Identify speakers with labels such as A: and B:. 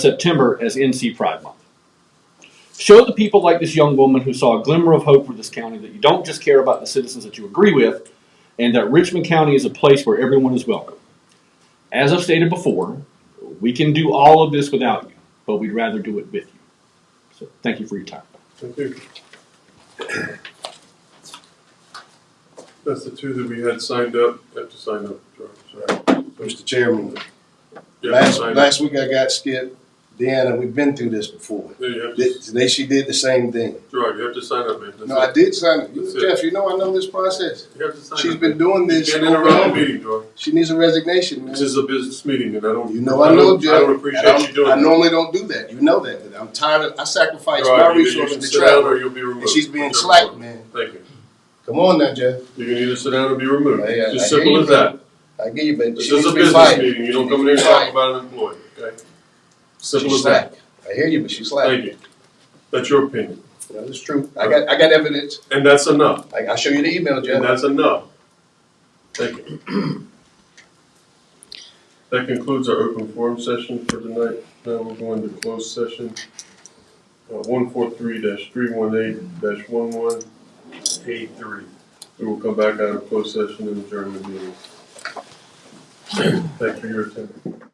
A: September as NC Pride Month. Show the people like this young woman who saw a glimmer of hope for this county that you don't just care about the citizens that you agree with, and that Richmond County is a place where everyone is welcome. As I've stated before, we can do all of this without you, but we'd rather do it with you. So thank you for your time.
B: Thank you. That's the two that we had signed up, had to sign up, Sorry.
C: Mr. Chairman,
B: Yeah,
C: last,
B: sign up.
C: last week I got skipped. Deanna, we've been through this before.
B: Yeah, you have to,
C: Th- Today she did the same thing.
B: Gerard, you have to sign up, man. That's
C: No, I
B: it.
C: did sign it. You-
B: That's it.
C: Jeff, you know I know this process.
B: You have to sign up.
C: She's been doing
B: You
C: this
B: Can't
C: over and
B: interrupt a
C: over.
B: meeting, Gerard.
C: She needs a resignation, man.
B: This is a business meeting and I don't.
C: You know I know,
B: don't- I
C: Jeff.
B: don't
C: and I'm-
B: appreciate you doing
C: I
B: that.
C: normally don't do that. You know that, but I'm tired of, I sacrifice
B: Gerard,
C: my
B: either you can
C: resources to
B: sit down
C: travel.
B: Or you'll be removed.
C: And she's being
B: Whichever
C: slack,
B: one.
C: man.
B: Thank you.
C: Come on now, Jeff.
B: You can either sit down or be removed.
C: Hey,
B: It's
C: I- I
B: as
C: hear
B: simple
C: you,
B: as that.
C: I give you, but
B: This
C: she
B: is
C: needs
B: a
C: to be
B: business
C: fired.
B: meeting. You
C: She
B: don't come in here
C: needs
B: and
C: to be
B: talk
C: fired.
B: about an employee, okay? Simple
C: She's
B: as that.
C: slack. I hear you, but she's slack.
B: Thank you. That's your opinion.
C: You know, It's true. I got, I got evidence.
B: And that's enough.
C: I, I'll show you the email, Jeff.
B: And that's enough. Thank you. That concludes our open forum session for tonight. Now we're going to closed session. Uh, One four three three one eight one one eight three. We will come back out of closed session and adjourn the meeting. Thank you for your attention.